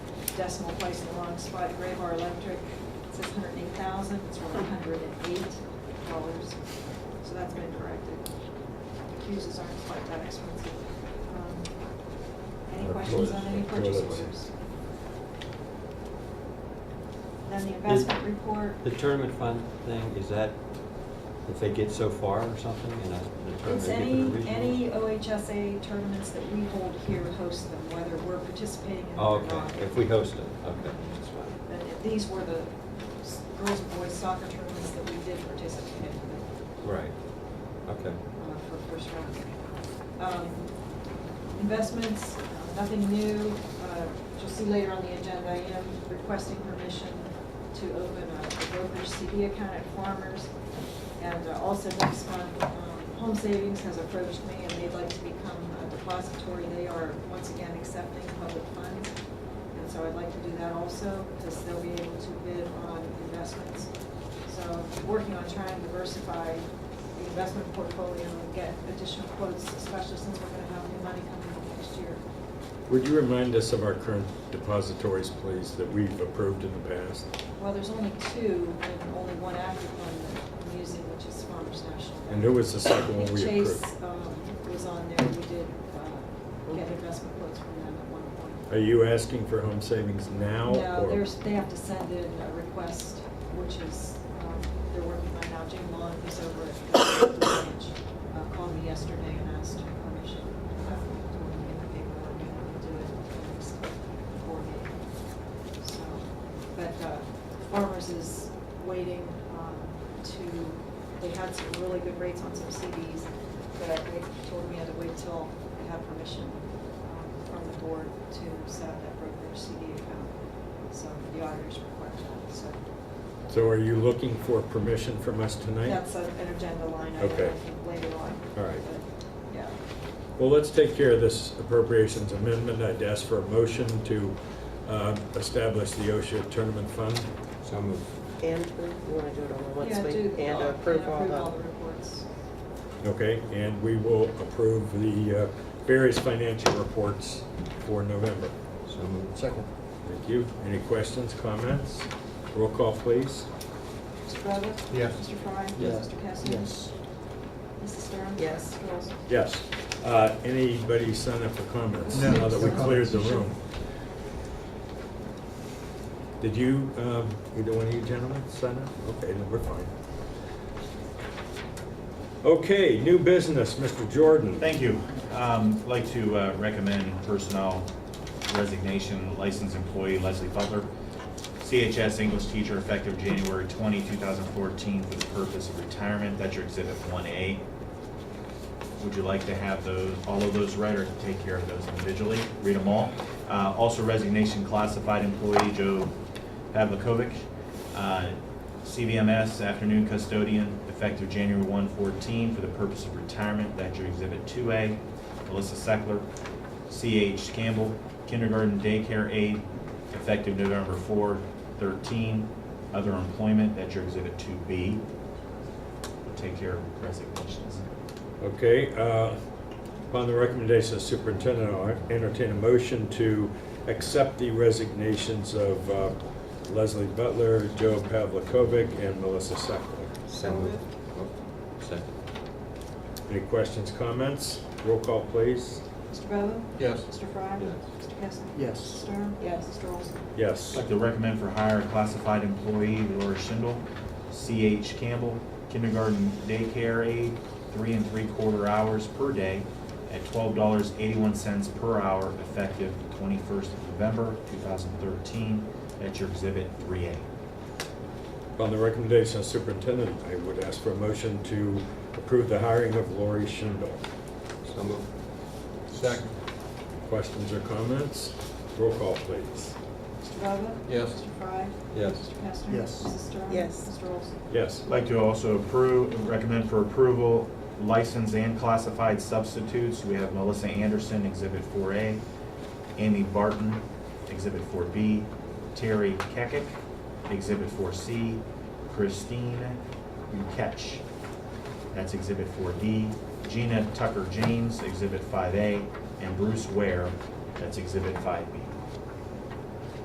decimal place in the wrong spot, Graybar Electric, it says hundred and eight thousand, it's really hundred and eight dollars. So that's been corrected. Fuses aren't quite that expensive. Um, Any Uh, Our questions toilets- on any our purchase toilets. orders? Then the investment report. The tournament fund thing, is that if they get so far or something in a in a tournament? It's they get any, to the regional? Oh, any OHSA tournaments that we hold here host them, whether we're participating in them Oh, or not. okay, if we host it, okay, that's fine. Then if these were the s- girls and boys soccer tournaments that we did participate in Right, okay. uh, for first round. Um, Investments, nothing new. Uh, You'll see later on the agenda, I am requesting permission to open a brokerage CD account at Farmers. And uh, also next month, um, Home Savings has approached me and they'd like to become a depository. They are once again accepting public funds. And so I'd like to do that also because they'll be able to bid on investments. So working on trying to diversify the investment portfolio and get additional quotes, especially since we're gonna have new money coming in next year. Would you remind us of our current depositories, please, that we've approved in the past? Well, there's only two and only one active one that I'm using, which is Farmers National. And who was the I second one think we Chase approved? um, was on there. We did uh, get investment quotes from them at one point. Are you asking for home savings now? No, or- there's, they have to send in a request, which is, um, they're working on now. Jim Long, who's over at the branch, uh, called me yesterday and asked for permission. I told him to get the paperwork and we'll do it at the next board meeting. So, But uh, Farmers is waiting um, to, they had some really good rates on some CDs, but they told me I had to wait till I had permission um, from the board to set up that brokerage CD account. So the auditors required that, so So are you looking for permission from us tonight? that's a- an agenda line item Okay. I think, later on. All right. But, Yeah. Well, let's take care of this appropriations amendment. I'd ask for a motion to uh, establish the OSHA tournament fund. So move. And approve, you want to do it all at once? Yeah, we- do- And uh, approve all the the, reports. Okay, and we will approve the uh, various financial reports for November. So moved. Second. Thank you. Any questions, comments? Roll call, please. Mr. Brevett? Yes. Mr. Fry? Yes. Mr. Cassidy? Yes. Mrs. Stern? Yes. Mr. Olson? Yes. Uh, Anybody sign up for comments? No. Now that we No cleared the comments. room. Did you, um, either one of you gentlemen sign up? Okay, then we're fine. Okay, new business, Mr. Jordan. Thank you. Um, Like to uh, recommend personnel resignation, licensed employee Leslie Butler, CHS English teacher effective January 20, 2014, for the purpose of retirement. That's your exhibit 1A. Would you like to have those, all of those read or take care of those individually? Read them all. Uh, Also resignation classified employee Joe Pavlikovic, uh, CVMS afternoon custodian, effective January 1, 14, for the purpose of retirement. That's your exhibit 2A. Melissa Seckler, CH Campbell, kindergarten daycare aide, effective November 4, 13, other employment. That's your exhibit 2B. We'll Take care of resignations. Okay, uh, upon the recommendation of superintendent, I'll entertain a motion to accept the resignations of uh, Leslie Butler, Joe Pavlikovic, and Melissa Seckler. So moved. Oh, Second. Any questions, comments? Roll call, please. Mr. Bova? Yes. Mr. Fry? Yes. Mr. Cassidy? Yes. Mr. Stern? Yes. Mr. Olson? Yes. I'd like to recommend for hire a classified employee Laura Schindel, C.H. Campbell, kindergarten daycare aide, three and three-quarter hours per day at twelve dollars eighty-one cents per hour effective twenty-first of November, two thousand thirteen. That's your exhibit three A. Upon the recommendation of superintendent, I would ask for a motion to approve the hiring of Lori Schindel. So moved. Second. Questions or comments? Roll call, please. Mr. Bova? Yes. Mr. Fry? Yes. Mr. Kastner? Yes. Mrs. Stern? Yes. Mr. Olson? Yes. I'd like to also approve, recommend for approval, licensed and classified substitutes. We have Melissa Anderson, Exhibit 4A, Amy Barton, Exhibit 4B, Terry Kekic, Exhibit 4C, Christine Uketch, that's Exhibit 4D, Gina Tucker James, Exhibit 5A, and Bruce Ware, that's Exhibit 5B.